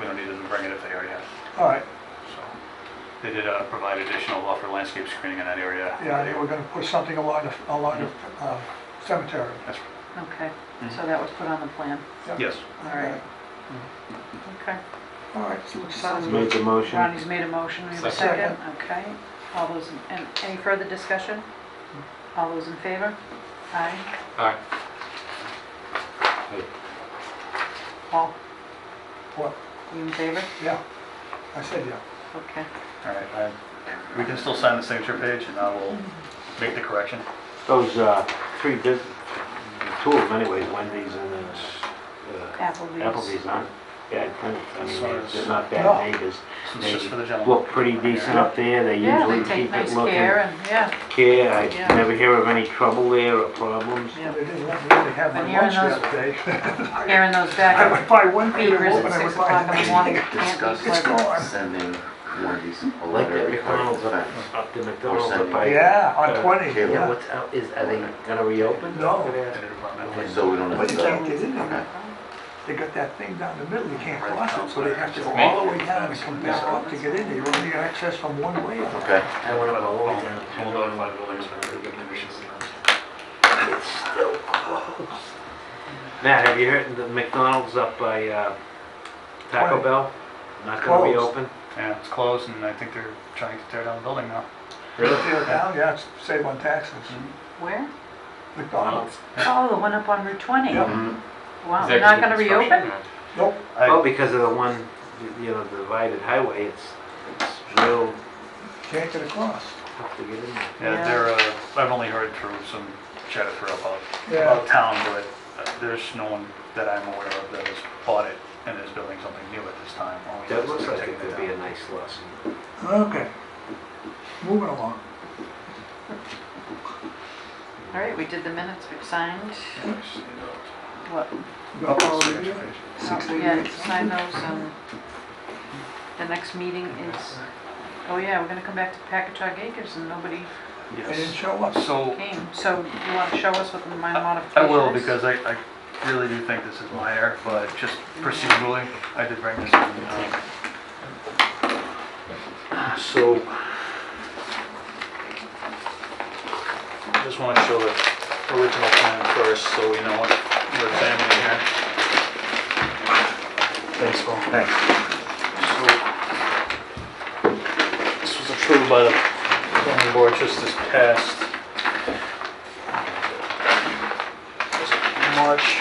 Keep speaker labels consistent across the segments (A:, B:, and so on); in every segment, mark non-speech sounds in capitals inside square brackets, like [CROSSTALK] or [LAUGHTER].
A: We don't need them to bring it if they already have. it.
B: All right,
A: So They did uh, provide additional buffer landscape screening in that area.
B: yeah, they were gonna put something along the, along the uh, cemetery.
A: That's-
C: Okay,
D: Hmm.
C: so that was put on the plan.
B: Yep.
A: Yes.
B: Okay.
C: All right. Okay.
B: All right,
C: Sounds
D: Make the motion.
C: Ronnie's made a motion, we have a
B: Second.
C: second, okay. All those, in- and any further discussion? All those in favor? Aye.
E: Aye.
C: All,
B: what,
C: you in favor?
B: yeah, I said yeah.
C: Okay.
A: All right, I- we can still sign the signature page and I will make the correction.
D: Those uh, three bus, two of them anyways, Wendy's and then uh,
C: Applebee's.
D: Applebee's aren't bad tenants. I mean, they're- they're not
B: No.
D: bad neighbors.
A: This is just for the
D: They
A: gentleman.
D: Look pretty decent up there. They
C: Yeah, they
D: usually
C: take
D: keep
C: nice
D: it
C: care
D: looking.
C: and, yeah.
D: Care, I
C: Yeah.
D: never hear of any trouble there or problems.
C: Yeah.
B: They didn't let me really have
C: But
B: my
C: here in
B: lunch the
C: those-
B: other day. [LAUGHS] I
C: Hearing those
B: I
C: back
B: would buy one Peter
C: beavers
B: Wolf
C: at
B: and I
C: six
B: would
C: o'clock in the
B: buy.
C: morning can't be
F: Discuss.
B: It's
C: pleasant.
B: gone.
F: sending Wendy's a
D: Like
F: letter
D: that
F: regarding
D: McDonald's
F: the
D: up,
F: fence.
D: up to McDonald's
F: sending-
D: up by.
B: Yeah, on
D: uh,
B: twenty,
F: Caleb.
D: Yeah,
B: yeah.
D: what's out, is, are they gonna reopen?
B: No.
A: And
D: Yeah.
A: environmental.
F: So we don't have
B: But
F: to.
B: you can't get in there.
F: Okay.
B: They got that thing down the middle, you can't cross it, so they have to go all the way down and come back up to get in there. You only get access from one way.
F: Okay.
D: I wanna go all the way down.
A: We'll notify the building inspector.
D: It's still closed. Matt, have you heard the McDonald's up by uh, Taco
B: Twenty.
D: Bell? Not gonna
B: Closed.
D: reopen?
A: Yeah, it's closed and I think they're trying to tear down the building now.
D: Really? Mm-hmm.
B: Tear it down, yeah, it's- save on taxes.
C: Where?
B: McDonald's,
C: Oh, the one up on Route 20.
B: Yeah.
G: Um,
F: Mhm.
C: Wow, they're not gonna reopen?
B: nope,
A: I-
D: Oh, because of the one, you know, the divided highway, it's, it's real
B: can't get across.
D: tough to get in there.
A: Yeah,
C: Yeah.
A: they're, uh, I've only heard through some chatter for about,
B: Yeah.
A: about town, but uh, there's no one that I'm aware of that has bought it and is building something new at this time. Only
D: That
A: it's
D: looks like
A: taking
D: it could be a
A: down.
D: nice lesson.
B: Okay, moving along.
C: All right, we did the minutes, we signed, what?
B: Got all of you? Six
C: Oh, Yeah, sign those, um, the next meeting is, oh yeah, we're gonna come back to Packagug Acres and nobody
B: They didn't
A: Yes.
B: show up.
A: So,
C: came. So you wanna show us what the minor
A: I
C: modification
A: will,
C: is?
A: because I, I really do think this is my error, but just procedurally, I did bring this in. uh, um,
D: So,
A: Just want to show the original plan first, so we know what we're examining here. Thanks, Paul. Thanks. This was approved by the planning board just this past was it March.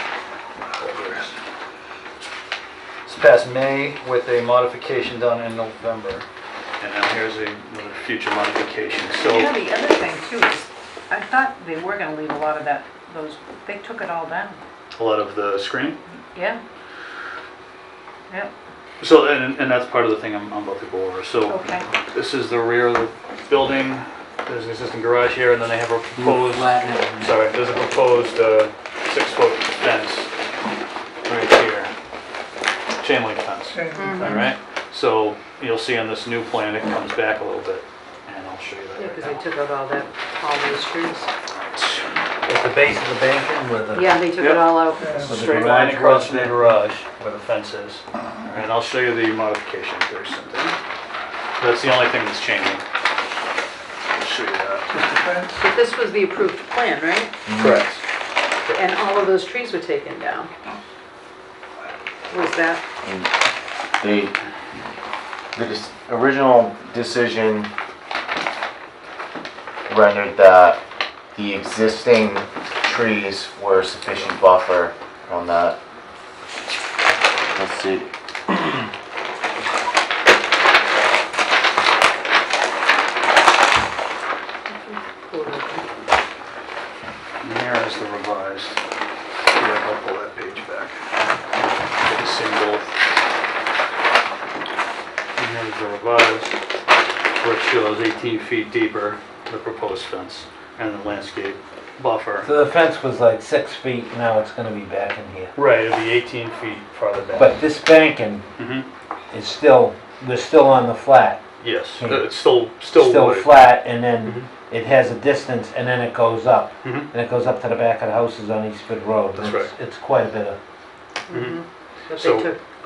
A: This past May with a modification done in November. And now here's a another future modification, so.
C: Yeah, the other thing too is, I thought they were gonna leave a lot of that, those, they took it all down,
A: a lot of the screening.
C: yeah? Yep,
A: So, and, and that's part of the thing I'm, I'm about to go over. So
C: okay,
A: this is the rear of the building. There's an existing garage here, and then they have a proposed,
D: flatten it.
A: sorry, there's a proposed uh, six-foot fence right here, chain link fence.
C: Mm-hmm.
B: Same.
A: All right. So you'll see on this new plan, it comes back a little bit, and I'll show you that.
C: yeah,
A: right
C: because they
A: now.
C: took out all that, all those trees.
D: It's the base of the banking with the.
C: Yeah, they took
A: Yep.
C: it all out.
B: Yeah.
D: With the
A: Straight
D: garage
A: line across from the
D: was
A: garage where the fence is. All right, And I'll show you the modification very soon. That's the only thing that's changing. I'll show you that.
B: Just a fence.
C: But this was the approved plan, right?
A: Correct.
C: And all of those trees were taken down. Was that,
G: The, the dis- original decision rendered that the existing trees were sufficient buffer on that. Let's see.
A: And here is the revised. Here, I'll pull that page back. Get a single. And here's the revised, which shows 18 feet deeper, the proposed fence and the landscape buffer.
D: So the fence was like six feet, now it's gonna be back in here.
A: Right, it'll be 18 feet farther back.
D: But this banking
A: Mhm.
D: is still, they're still on the flat.
A: Yes,
D: Hmm.
A: uh, it's still, still
D: Still
A: wood. Mm-hmm.
D: flat, and then it has a distance, and then it goes up.
A: Mhm.
D: And it goes up to the back of the houses on Eastford Road.
A: That's
D: It's- It's quite a bit of,
C: but they
A: So-
C: took